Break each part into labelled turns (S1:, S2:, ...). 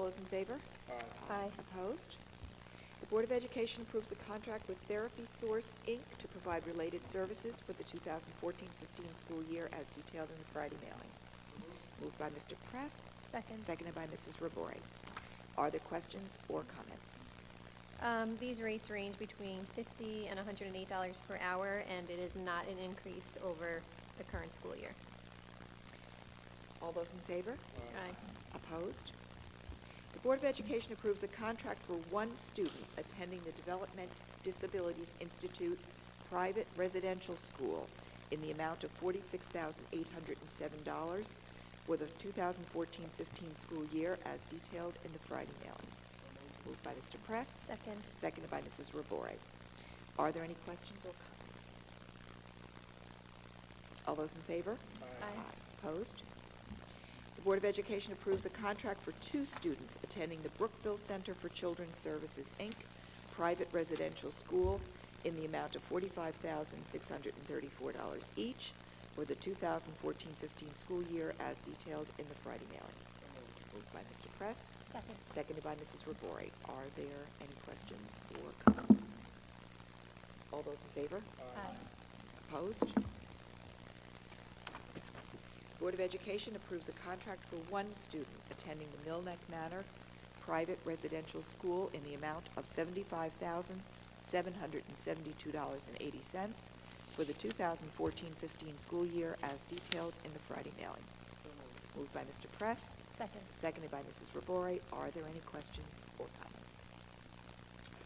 S1: those in favor?
S2: Aye.
S1: Opposed? The Board of Education approves a contract with Therapy Source, Inc. to provide related services for the 2014-15 school year as detailed in the Friday mailing. Moved by Mr. Press,
S2: Second.
S1: seconded by Mrs. Robori. Are there questions or comments?
S2: Um, these rates range between fifty and hundred and eight dollars per hour, and it is not an increase over the current school year.
S1: All those in favor?
S2: Aye.
S1: Opposed? The Board of Education approves a contract for one student attending the Development Disabilities Institute Private Residential School in the amount of forty-six thousand eight hundred and seven dollars for the 2014-15 school year as detailed in the Friday mailing. Moved by Mr. Press.
S2: Second.
S1: Seconded by Mrs. Robori. Are there any questions or comments? All those in favor?
S2: Aye.
S1: Opposed? The Board of Education approves a contract for two students attending the Brookville Center for Children's Services, Inc., private residential school, in the amount of forty-five thousand, six hundred and thirty-four dollars each for the 2014-15 school year as detailed in the Friday mailing. Moved by Mr. Press.
S2: Second.
S1: Seconded by Mrs. Robori. Are there any questions or comments? All those in favor?
S2: Aye.
S1: Opposed? Board of Education approves a contract for one student attending the Millneck Manor Private Residential School in the amount of seventy-five thousand, seven hundred and seventy-two dollars and eighty cents for the 2014-15 school year as detailed in the Friday mailing. Moved by Mr. Press.
S2: Second.
S1: Seconded by Mrs. Robori. Are there any questions or comments?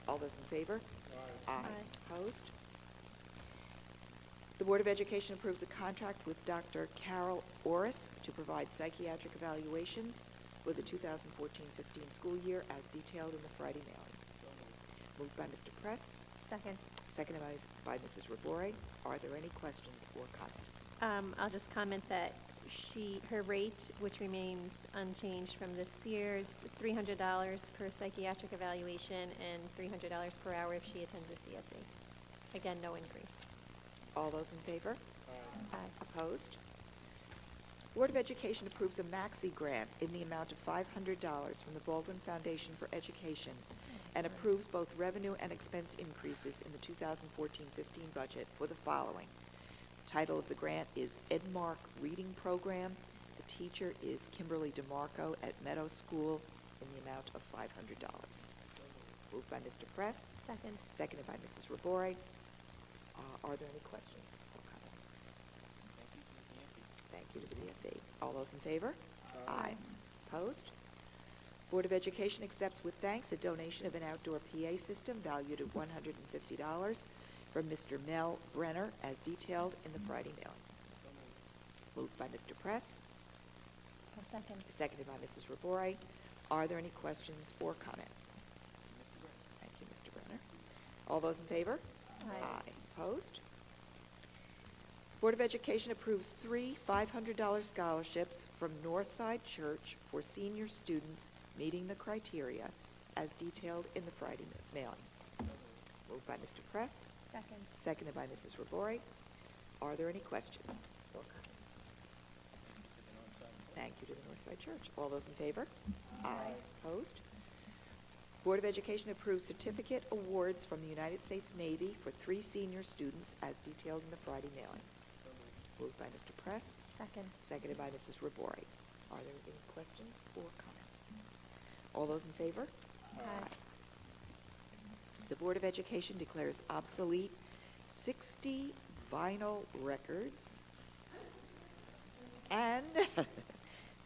S1: All those in favor?
S3: Aye.
S2: Aye.
S1: Opposed? The Board of Education approves a contract with Dr. Carol Orris to provide psychiatric evaluations for the 2014-15 school year as detailed in the Friday mailing. Moved by Mr. Press,
S2: Second.
S1: seconded by- by Mrs. Robori. Are there any questions or comments?
S2: Um, I'll just comment that she, her rate, which remains unchanged from this year's, three hundred dollars per psychiatric evaluation and three hundred dollars per hour if she attends a CSE. Again, no increase.
S1: All those in favor?
S2: Aye.
S1: Opposed? Board of Education approves a maxi grant in the amount of $500 from the Baldwin Foundation for Education and approves both revenue and expense increases in the 2014-15 budget for the following. The Title of the grant is Edmark Reading Program. The teacher is Kimberly DeMarco at Meadow School in the amount of $500. Moved by Mr. Press,
S2: Second.
S1: seconded by Mrs. Robori. Uh, Are there any questions or comments? Thank you to the BFD. All those in favor?
S3: Aye.
S1: Opposed? Board of Education accepts with thanks a donation of an outdoor PA system valued at one hundred and fifty dollars from Mr. Mel Brenner as detailed in the Friday mailing. Moved by Mr. Press,
S2: second.
S1: seconded by Mrs. Robori. Are there any questions or comments? Thank you, Mr. Brenner. All those in favor?
S2: Aye.
S1: Opposed? Board of Education approves three $500 scholarships from Northside Church for senior students meeting the criteria as detailed in the Friday ma- mailing. Moved by Mr. Press,
S2: Second.
S1: seconded by Mrs. Robori. Are there any questions or comments? Thank you to the Northside Church. All those in favor?
S2: Aye.
S1: Opposed? Board of Education approves certificate awards from the United States Navy for three senior students as detailed in the Friday mailing. Moved by Mr. Press,
S2: Second.
S1: seconded by Mrs. Robori. Are there any questions or comments? All those in favor?
S2: Aye.
S1: The Board of Education declares obsolete 60 vinyl records and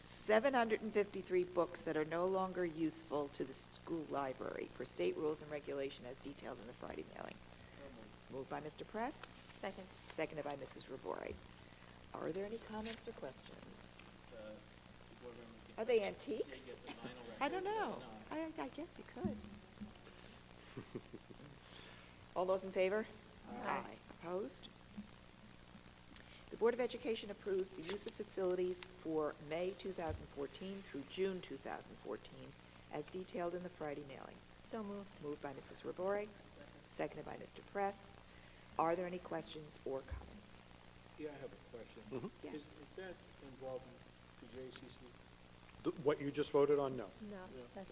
S1: 753 books that are no longer useful to the school library per state rules and regulation as detailed in the Friday mailing. Moved by Mr. Press,
S2: Second.
S1: seconded by Mrs. Robori. Are there any comments or questions? Are they antiques? I don't know. I, I guess you could. All those in favor?
S2: Aye.
S1: Opposed? The Board of Education approves the use of facilities for May 2014 through June 2014 as detailed in the Friday mailing.
S2: So moved.
S1: Moved by Mrs. Robori, seconded by Mr. Press. Are there any questions or comments?
S3: Yeah, I have a question.
S1: Yes.
S3: Is, is that involving the JCC?
S4: Th- What you just voted on, no.
S2: No,
S3: Yeah.
S2: that's